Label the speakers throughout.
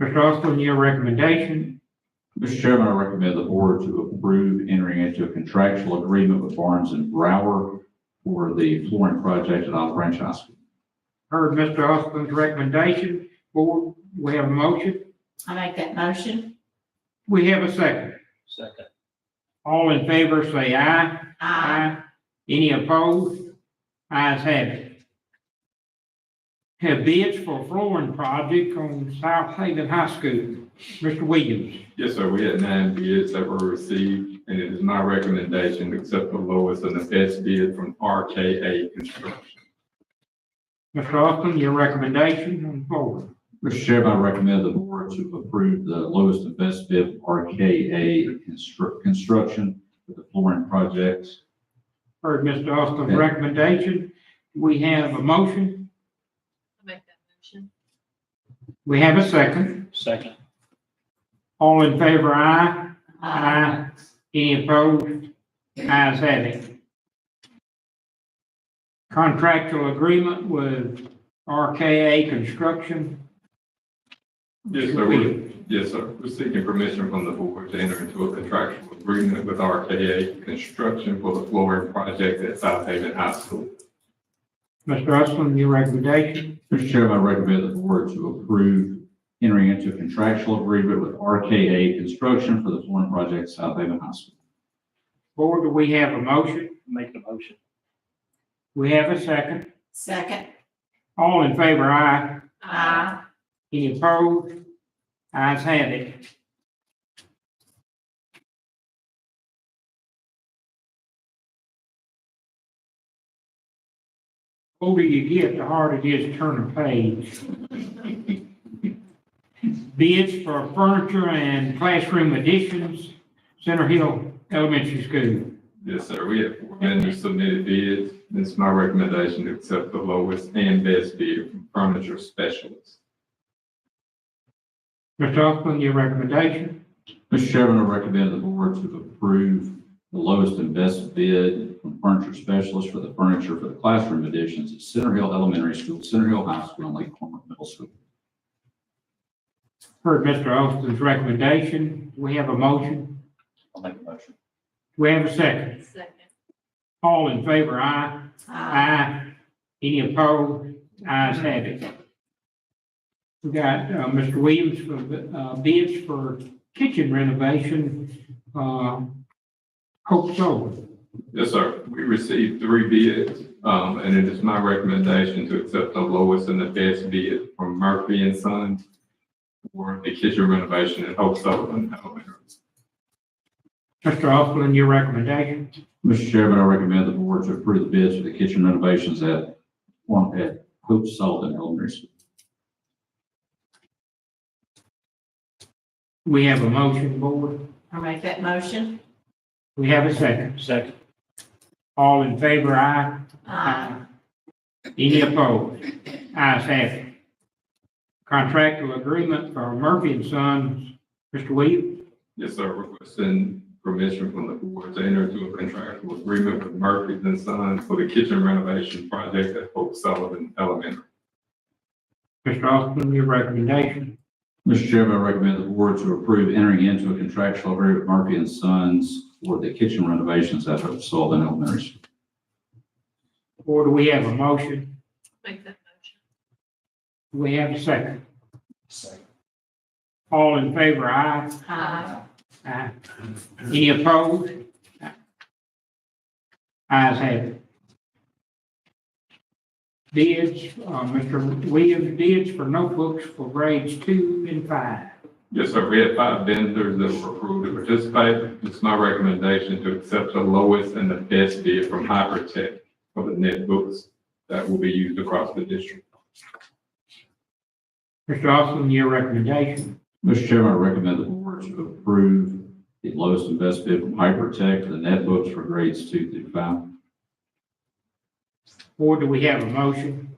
Speaker 1: Mr. Austin, your recommendation,
Speaker 2: Mr. Chairman, I recommend the board to approve entering into a contractual agreement with Barnes and Brower for the flooring project at Olive Branch High School.
Speaker 1: heard Mr. Austin's recommendation, board, we have a motion,
Speaker 3: I make that motion.
Speaker 1: we have a second.
Speaker 4: Second.
Speaker 1: All in favor, say aye.
Speaker 3: Aye.
Speaker 1: Any opposed? Ayes have it. Have bids for flooring project on South Haven High School. Mr. Williams,
Speaker 5: Yes, sir, we had nine bids that were received, and it is my recommendation to accept the lowest and the best bid from RKA Construction.
Speaker 1: Mr. Austin, your recommendation on the board.
Speaker 2: Mr. Chairman, I recommend the board to approve the lowest and best bid RKA Constru- Construction for the flooring project.
Speaker 1: Heard Mr. Austin's recommendation. We have a motion.
Speaker 6: I'll make that motion.
Speaker 1: We have a second.
Speaker 4: Second.
Speaker 1: All in favor, aye. Aye. Any opposed? Ayes have it. Contractual agreement with RKA Construction.
Speaker 5: Yes,
Speaker 1: Mr.
Speaker 5: sir,
Speaker 1: Williams.
Speaker 5: we're, yes, sir, we're seeking permission from the board to enter into a contractual agreement with RKA Construction for the flooring project at South Haven High School.
Speaker 1: Mr. Usleton, your recommendation.
Speaker 2: Mr. Chairman, I recommend the board to approve entering into a contractual agreement with RKA Construction for the flooring project at South Haven High School.
Speaker 1: Board, do we have a motion?
Speaker 4: Make the motion.
Speaker 1: We have a second.
Speaker 3: Second.
Speaker 1: All in favor, aye.
Speaker 6: Uh,
Speaker 3: Aye.
Speaker 1: Any opposed? Ayes have it. Older you get, the harder it is to turn a page. Bids for furniture and classroom additions, Center Hill Elementary School.
Speaker 5: Yes, sir, we have four vendors submitted bids, and it's my recommendation to accept the lowest and best bid from Furniture Specialists.
Speaker 1: Mr. Austin, your recommendation?
Speaker 2: Mr. Chairman, I recommend the board to approve the lowest and best bid from furniture specialist for the furniture for the classroom additions at Center Hill Elementary School, Center Hill High School, and Lake Cornwall Middle School.
Speaker 1: Heard Mr. Austin's recommendation. Do We have a motion.
Speaker 2: I'll make a motion.
Speaker 1: Do We have a second.
Speaker 6: Second.
Speaker 1: All in favor, aye. Aye. Any opposed? Ayes have it. We got, uh, Mr. Williams for, uh, bids for kitchen renovation, uh, Hope So.
Speaker 5: Yes, sir. We received three bids, um, and it is my recommendation to accept the lowest and the best bid from Murphy and Sons for the kitchen renovation at Hope Sullivan Elementary.
Speaker 1: Mr. Austin, your recommendation.
Speaker 2: Mr. Chairman, I recommend the board to approve the bids for the kitchen renovations at one at Hope Sullivan Elementary School.
Speaker 1: We have a motion, board.
Speaker 3: I make that motion.
Speaker 1: We have a second.
Speaker 4: Second.
Speaker 1: All in favor, aye.
Speaker 3: Aye.
Speaker 1: Any opposed? Ayes have it. Contractual agreement for Murphy and Sons, Mr. Williams.
Speaker 5: Yes, sir. Requesting permission from the board to enter into a contractual agreement with Murphy and Sons for the kitchen renovation project at Hope Sullivan Elementary.
Speaker 1: Mr. Austin, your recommendation.
Speaker 2: Mr. Chairman, I recommend the board to approve entering into a contractual agreement with Murphy and Sons for the kitchen renovations at Hope Sullivan Elementary School.
Speaker 1: Or do we have a motion?
Speaker 6: Make that motion.
Speaker 1: Do we have a second?
Speaker 4: Second.
Speaker 1: All in favor, aye.
Speaker 3: Aye.
Speaker 1: Aye. Any opposed? Ayes have it. Bids, uh, Mr. Williams, bids for notebooks for grades two and five.
Speaker 5: Yes, sir. We had five vendors that were approved to participate. It's my recommendation to accept the lowest and the best bid from Hypertech for the netbooks that will be used across the district.
Speaker 1: Mr. Austin, your recommendation.
Speaker 2: Mr. Chairman, I recommend the board to approve the lowest and best bid from Hypertech for the netbooks for grades two through five.
Speaker 1: Or do we have a motion?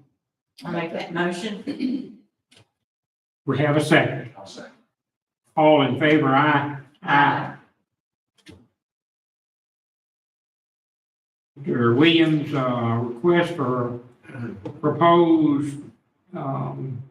Speaker 3: I make that motion.
Speaker 1: We have a second.
Speaker 4: I'll second.
Speaker 1: All in favor, aye. Mr. Williams, uh, request for proposed, um,